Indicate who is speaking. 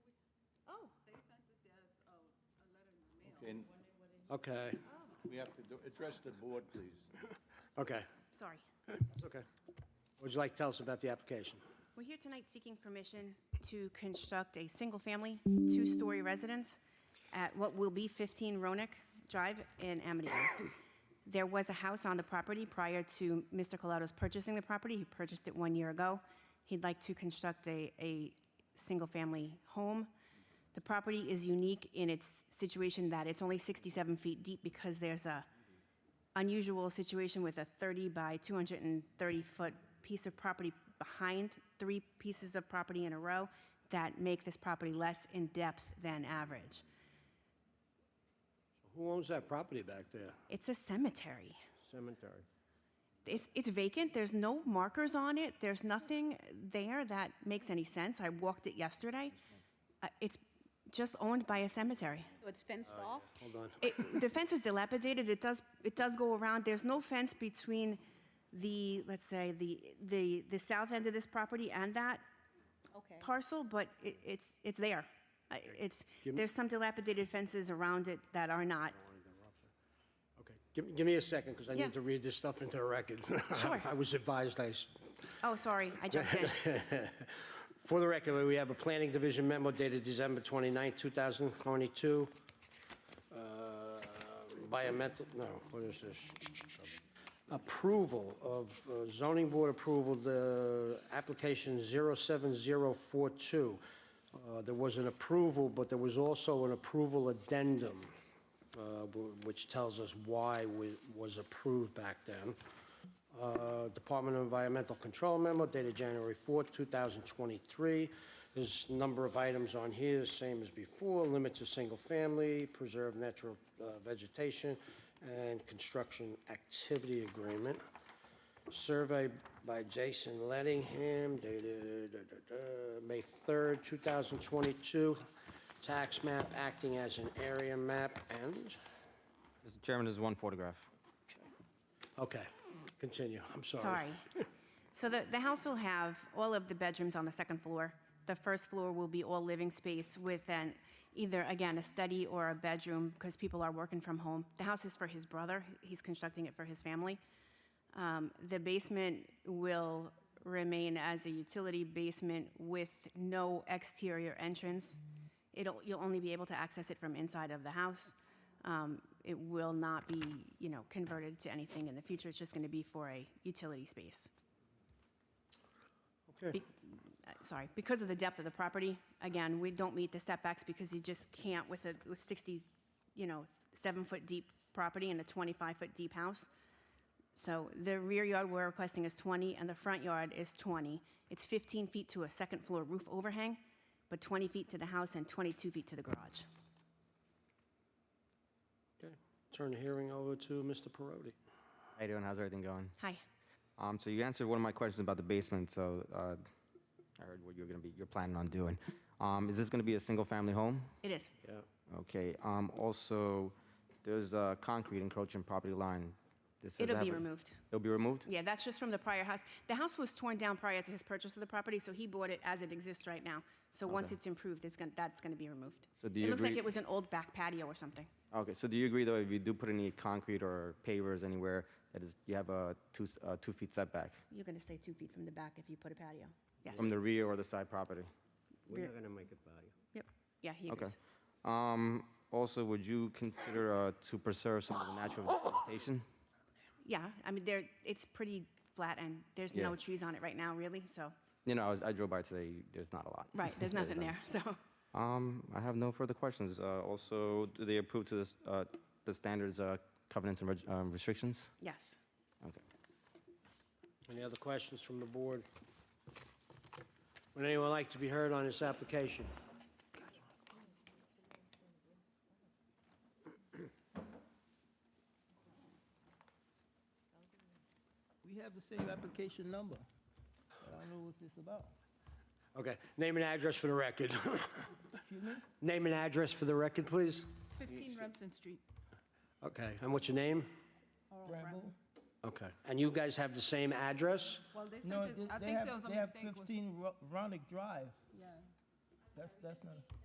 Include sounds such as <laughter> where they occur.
Speaker 1: Oh,
Speaker 2: And
Speaker 3: Okay,
Speaker 2: we have to do, address the board, please.
Speaker 3: okay,
Speaker 1: Sorry.
Speaker 3: it's okay. What Would you like to tell us about the application?
Speaker 1: We're here tonight seeking permission to construct a single-family, two-story residence at what will be 15 Ronick Drive in Amityville. There was a house on the property prior to Mr. Colato's purchasing the property. He purchased it one year ago. He'd like to construct a, a single-family home. The property is unique in its situation that it's only 67 feet deep because there's a, unusual situation with a 30 by 230-foot piece of property behind three pieces of property in a row that make this property less in depth than average.
Speaker 3: Who owns that property back there?
Speaker 1: It's a cemetery.
Speaker 3: Cemetery.
Speaker 1: It's, it's vacant, there's no markers on it, there's nothing there that makes any sense. I walked it yesterday. Uh, It's just owned by a cemetery.
Speaker 4: So it's fenced off?
Speaker 3: Hold on.
Speaker 1: It, the fence is dilapidated, it does, it does go around, there's no fence between the, let's say, the, the, the south end of this property and that
Speaker 4: Okay.
Speaker 1: parcel, but it, it's, it's there. I- It's, there's some dilapidated fences around it that are not.
Speaker 3: Okay, give, give me a second, because I
Speaker 1: Yeah.
Speaker 3: need to read this stuff into the record. <laughs>
Speaker 1: Sure.
Speaker 3: I was advised I s-
Speaker 1: Oh, sorry, I jumped in.
Speaker 3: For the record, we have a planning division memo dated December 29, 2022. uh, Environmental, no, what is this? Approval of uh, zoning board approval, the application 07042. Uh, There was an approval, but there was also an approval addendum, uh, wh- which tells us why wa- was approved back then. Uh, Department of Environmental Control memo dated January 4, 2023. There's a number of items on here, the same as before, limits of single-family, preserve natural uh, vegetation, and construction activity agreement. Survey by Jason Lettingham dated uh, uh, May 3, 2022. Tax map acting as an area map and,
Speaker 5: Mr. Chairman, there's one photograph.
Speaker 3: okay, continue, I'm sorry.
Speaker 1: Sorry. So the, the house will have all of the bedrooms on the second floor. The first floor will be all living space with an, either, again, a study or a bedroom, because people are working from home. The house is for his brother, he's constructing it for his family. Um, The basement will remain as a utility basement with no exterior entrance. It'll, you'll only be able to access it from inside of the house. Um, It will not be, you know, converted to anything in the future, it's just going to be for a utility space.
Speaker 3: Okay.
Speaker 1: Be- uh, Sorry, because of the depth of the property, again, we don't meet the setbacks because you just can't with a, with 60, you know, seven-foot-deep property and a 25-foot-deep house. So the rear yard we're requesting is 20, and the front yard is 20. It's 15 feet to a second-floor roof overhang, but 20 feet to the house and 22 feet to the garage.
Speaker 3: Okay, turn the hearing over to Mr. Perotti.
Speaker 5: How you doing? How's everything going?
Speaker 1: Hi.
Speaker 5: Um, so you answered one of my questions about the basement. So uh, I heard what you're gonna be, you're planning on doing. Um, is this gonna be a single-family home?
Speaker 1: It is.
Speaker 3: Yeah.
Speaker 5: Okay. Um, also, there's uh, concrete encroaching property line. This is
Speaker 1: It'll be
Speaker 5: ever-
Speaker 1: removed.
Speaker 5: It'll be removed.
Speaker 1: Yeah, that's just from the prior house. The house was torn down prior to his purchase of the property, so he bought it as it exists right now. So once
Speaker 5: Okay.
Speaker 1: it's improved, it's going, that's going to be removed.
Speaker 5: So do you
Speaker 1: It looks like
Speaker 5: agree-
Speaker 1: it was an old back patio or something.
Speaker 5: Okay. So do you agree though, if you do put any concrete or pavers anywhere, that is, you have a two s- uh, two feet setback
Speaker 1: You're going to stay two feet from the back if you put a patio. Yes.
Speaker 5: from the rear or the side property?
Speaker 1: We're not
Speaker 3: going to make it value.
Speaker 1: Yep. Yeah, he
Speaker 5: Okay.
Speaker 1: agrees.
Speaker 5: Um, also, would you consider uh, to preserve some of the natural vegetation?
Speaker 1: Yeah, I mean, there, it's pretty flat and there's no
Speaker 5: Yeah.
Speaker 1: trees on it right now, really, so,
Speaker 5: You know, I, was, I drove by today. There's not a lot.
Speaker 1: right,
Speaker 5: <laughs>
Speaker 1: there's nothing there, so.
Speaker 5: Um, I have no further questions. Uh, also, do they approve to this, uh, the standards, uh, covenants, and reg- um, restrictions?
Speaker 1: Yes.
Speaker 5: Okay.
Speaker 3: Any other questions from the board? Would anyone like to be heard on this application?
Speaker 6: We have the same application number. I don't know what this about.
Speaker 3: Okay, name and address for the record. <laughs>
Speaker 6: Excuse me?
Speaker 3: Name and address for the record, please.
Speaker 7: 15 Remsen Street.
Speaker 3: Okay, and what's your name?
Speaker 6: Rambo?
Speaker 3: Okay, and you guys have the same address?
Speaker 7: Well, they said,
Speaker 6: No,
Speaker 7: this-
Speaker 6: they
Speaker 7: I
Speaker 6: they
Speaker 7: think
Speaker 6: have,
Speaker 7: there was a
Speaker 6: they have
Speaker 7: mistake. with-
Speaker 6: 15 Ro- Ronick Drive.
Speaker 7: Yeah.
Speaker 6: That's, that's not.